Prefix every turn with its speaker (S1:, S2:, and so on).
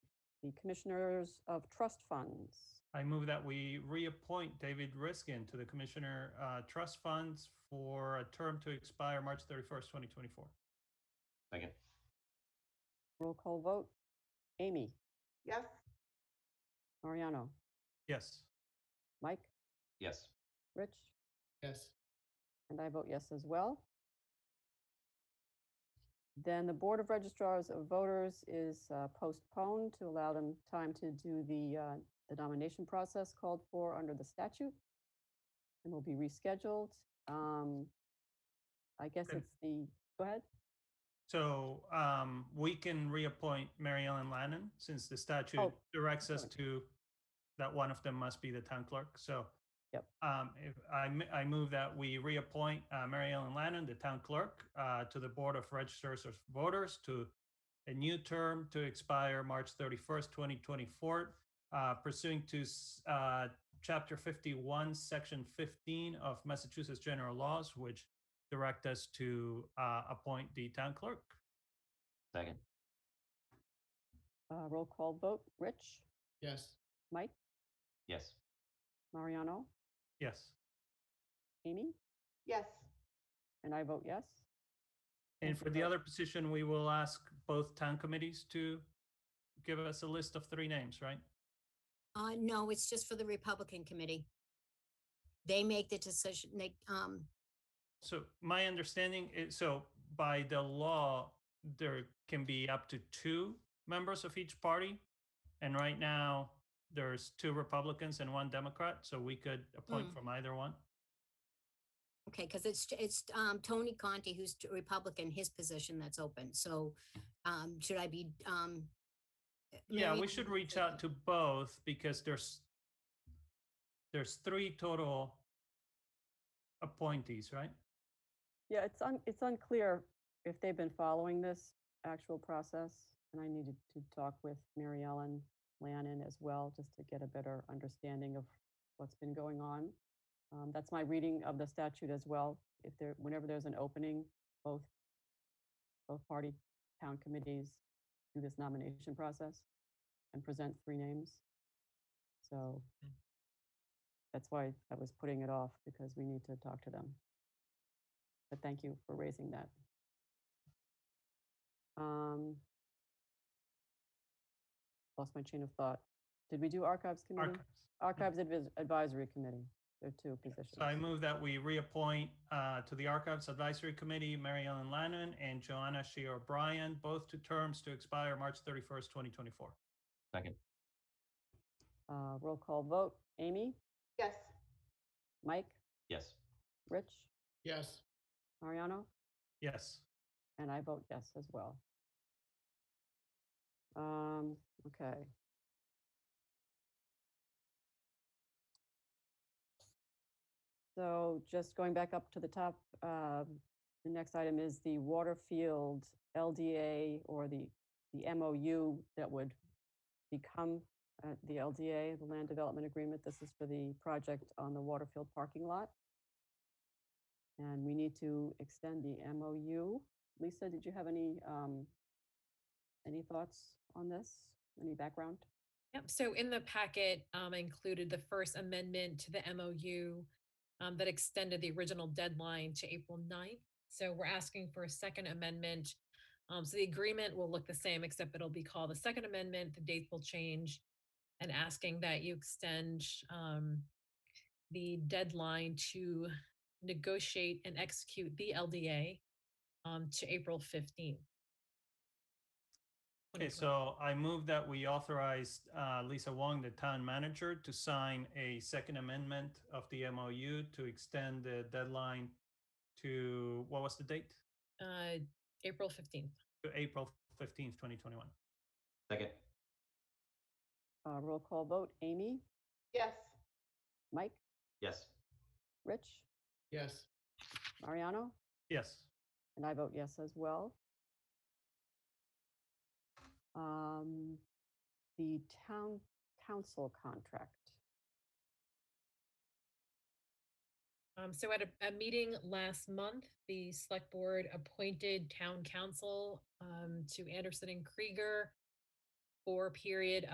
S1: the Commissioners of Trust Funds.
S2: I move that we reappoint David Riskin to the Commissioner uh, Trust Funds for a term to expire March 31st, 2024.
S3: Second.
S1: Roll call vote. Amy,
S4: yes,
S1: Mariano,
S2: Yes.
S1: Mike,
S3: Yes.
S1: Rich,
S5: yes,
S1: and I vote yes as well. Then the Board of Registrars of Voters is uh, postponed to allow them time to do the uh, the nomination process called for under the statute and will be rescheduled. Um, I guess
S2: Okay.
S1: it's the, go ahead.
S2: So um, we can reappoint Mary Ellen Lannon since the statute
S1: Oh,
S2: directs us
S1: sorry.
S2: to that one of them must be the town clerk. So
S1: Yep.
S2: um, if I, m- I move that we reappoint uh, Mary Ellen Lannon, the town clerk, uh, to the Board of Registrars of Voters to a new term to expire March 31st, 2024, uh, pursuant to s- uh, Chapter 51, Section 15 of Massachusetts General Laws, which direct us to uh, appoint the town clerk.
S3: Second.
S1: Uh, Roll call vote. Rich,
S5: yes,
S1: Mike,
S3: Yes.
S1: Mariano,
S2: Yes.
S1: Amy,
S4: yes,
S1: and I vote yes.
S2: And
S1: Thank
S2: for
S1: you
S2: the
S1: both.
S2: other position, we will ask both town committees to give us a list of three names, right?
S6: Uh, no, it's just for the Republican Committee. They make the decision, they, um,
S2: So my understanding is, so by the law, there can be up to two members of each party. And right now, there's two Republicans and one Democrat, so we could appoint
S6: Mm.
S2: from either one.
S6: okay, because it's, it's, um, Tony Conti, who's t- Republican, his position that's open, so, um, should I be, um?
S2: Yeah,
S6: Mary-
S2: we should reach out to both because there's there's three total appointees, right?
S1: Yeah, it's un, it's unclear if they've been following this actual process. And I needed to talk with Mary Ellen Lannon as well, just to get a better understanding of what's been going on. Um, that's my reading of the statute as well. If there, whenever there's an opening, both, both party town committees do this nomination process and present three names. So that's why I was putting it off because we need to talk to them but thank you for raising that. Um, lost my chain of thought. Did we do archives committee?
S2: Archives.
S1: Archives Advis- advisory committee. There are two positions.
S2: Mm-hmm. So I move that we reappoint uh, to the Archives Advisory Committee, Mary Ellen Lannon and Joanna Shea O'Brien, both to terms to expire March 31st, 2024.
S3: Second.
S1: Uh, roll call vote. Amy,
S4: yes,
S1: Mike,
S3: Yes.
S1: Rich,
S5: yes,
S1: Mariano,
S2: Yes.
S1: and I vote yes as well. Um, okay. So just going back up to the top, uh, the next item is the Waterfield LDA or the, the MOU that would become uh, the LDA, the Land Development Agreement. This is for the project on the Waterfield parking lot. And we need to extend the MOU. Lisa, did you have any, um, any thoughts on this? Any background?
S7: Yep, so in the packet, um, I included the first amendment to the MOU um, that extended the original deadline to April 9th. So we're asking for a second amendment. Um, so the agreement will look the same, except it'll be called the second amendment, the dates will change. And asking that you extend, um, the deadline to negotiate and execute the LDA, um, to April 15th.
S2: Okay,
S7: 2024.
S2: so I move that we authorize uh, Lisa Wong, the town manager, to sign a second amendment of the MOU to extend the deadline to, what was the date?
S7: Uh, April 15th.
S2: To April 15th, 2021.
S3: Second.
S1: Uh, roll call vote. Amy,
S4: yes,
S1: Mike,
S3: Yes.
S1: Rich,
S5: yes,
S1: Mariano?
S2: Yes.
S1: And I vote yes as well. Um, The town council contract.
S7: Um, so at a, a meeting last month, the select board appointed town council, um, to Anderson and Krieger for a period